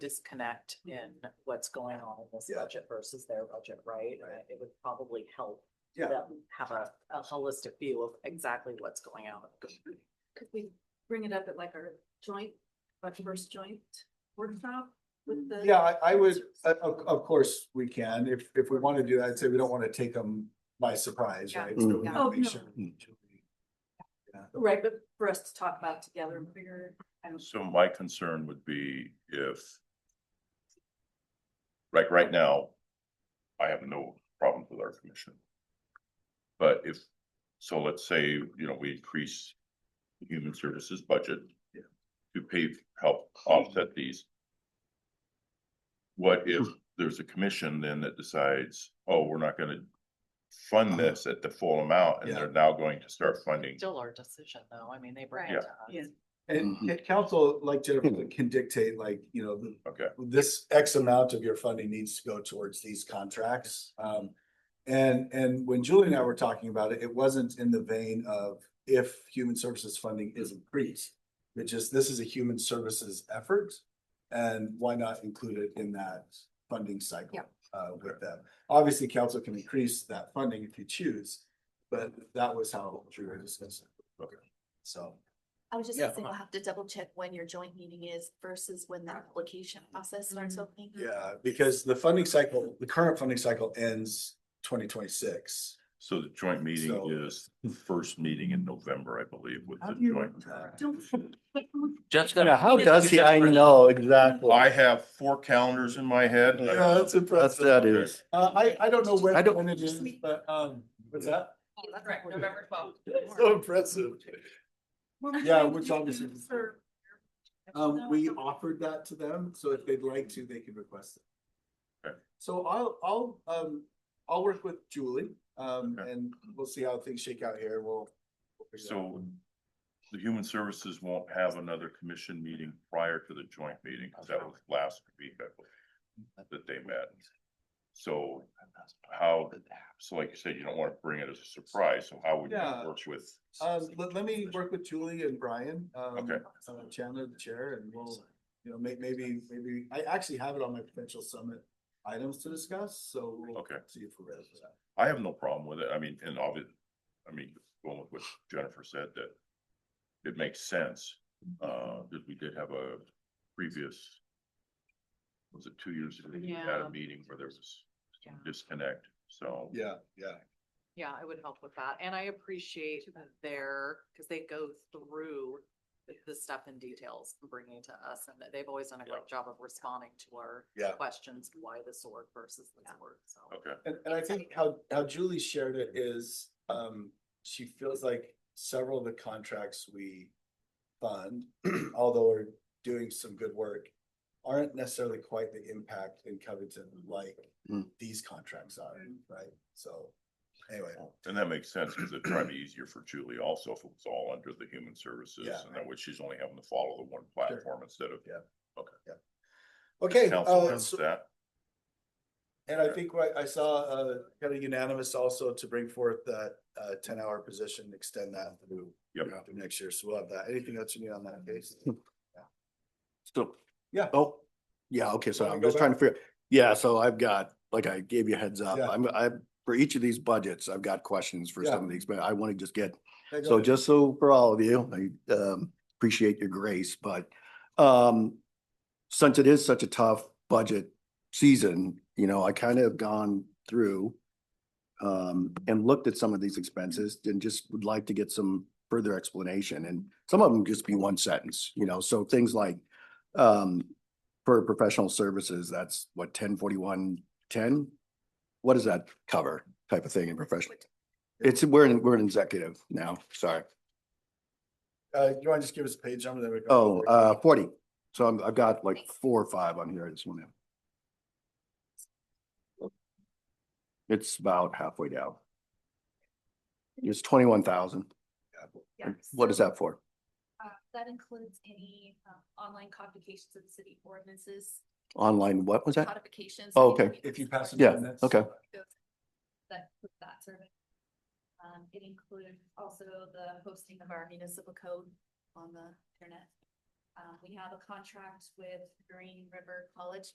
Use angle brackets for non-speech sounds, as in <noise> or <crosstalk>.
disconnect in what's going on in this Mm-hmm. Yeah. budget versus their budget, right? And Right. It would probably help Yeah. them have a, a holistic view of exactly what's going on. Could we bring it up at like our joint, our first joint workshop with the? Yeah, I, I would, uh, of, of course, we can, if, if we want to do that, I'd say we don't want to take them by surprise, Yeah. right? So we Yeah. wanna Oh, make no. sure. Yeah. Right, but for us to talk about together and figure, I don't. So my concern would be if. Like right now, I have no problems with our commission. But if, so let's say, you know, we increase the human services budget. Yeah. To pay, help offset these. What if there's a commission then that decides, oh, we're not gonna fund this at the full amount and Uh-huh. Yeah. they're now going to start funding? Still our decision though. I mean, they bring Right. it to us. <laughs> Yeah. And, Mm-hmm. and council, like Jennifer, said, can dictate like, you know, the- Hmm. Okay, this X amount of your funding needs to go towards these contracts. Um, and, and when Julie and I were talking about it, it wasn't in the vein of if human services funding Mm-hmm. is increased. It just, this is a human services effort and why not include it in that funding cycle? Yeah. Uh, with them. Obviously, council can increase that funding if you choose, but that was how Drew discussed it. Okay. So. I was just gonna Yeah. uh-huh. say, we'll have to double check when your joint meeting is versus when that application process starts opening. Yeah, because the funding cycle, the current funding cycle ends twenty twenty-six. so the joint meeting So- is the first meeting in November, I believe, with How the do you joint. remember that? Don't. Jessica. how does he, I know, exactly. I have four calendars in my head. Yeah, that's That's, impressive. that is. Uh, I, I don't know when, I don't- when it is, but, um, what's that? Right, November <laughs> twelfth. So impressive. Yeah, which obviously- Um, we offered that to them, so if they'd like to, they could request it. Okay. So I'll, I'll, um, I'll work with Julie, um, Okay. and we'll see how things shake out here. We'll. we'll figure it out. So the human services won't have another commission meeting prior to the joint meeting, because that was last week, I believe, that they met. So how, so like you said, you don't want to bring it as a surprise, so how would you Yeah. work with? Um, let, let me work with Julie and Brian, um, Okay. uh, Chandler, the chair, and we'll, you know, may, maybe, maybe, I actually have it on my potential summit items to discuss, so we'll Okay. see if we're ready for that. I have no problem with it, I mean, and obviously, I mean, going with what Jennifer said, that it makes sense, Mm-hmm. uh, that we did have a previous, was it two years ago, we had Yeah. a meeting where there was Yeah. disconnect, so. Yeah, yeah. Yeah, I would help with that. And I appreciate their, because they go through the- the stuff in details and bringing it to us and that they've always done a great job of responding to our Yeah. questions, why the sword versus the sword, so. Okay, And, and I think how, how Julie shared it is, um, she feels like several of the contracts we fund, <clears throat> although we're doing some good work, aren't necessarily quite the impact in Covington like Mm. these contracts are, right? So, anyway. and that makes sense, because it'd probably be easier for Julie also if it was all under the human services, Yeah. and that way she's only having to follow the one platform instead of Yeah. Okay. Okay, council uh, does so- that. and I think what I saw, uh, kind of unanimous also to bring forth that, uh, ten hour position, extend that through Yep. through next year, so we'll have that. Anything else you need on that case? <laughs> So. Yeah. Oh, yeah, okay, so Wanna I'm go just trying to figure, yeah, so I've got, like I gave you a heads up, Yeah. I'm, I, for each of these budgets, I've got questions for Yeah. some of these, but I want to just get Yeah, go So ahead. just so for all of you, I um appreciate your grace, but um since it is such a tough budget season, you know, I kind of have gone through um and looked at some of these expenses and just would like to get some further explanation and some of them just be one sentence, you know, so things like um for professional services, that's what, ten forty-one, ten? What does that cover type of thing in professional? It's, we're in, we're an executive now, sorry. Uh, you wanna just give us a page number, then we go? Oh, uh, forty. So I'm, I've got like four or five on here. I just want to. It's about halfway down. It's twenty-one thousand. What is that for? Uh, That includes any um, online codifications of city ordinances, Online, what was that? codifications. Oh, okay. If you pass. it Yeah, on, that's- okay. That, that survey. Um, it includes also the hosting of our municipal code on the internet. Uh, Um, we have a contract with Green River College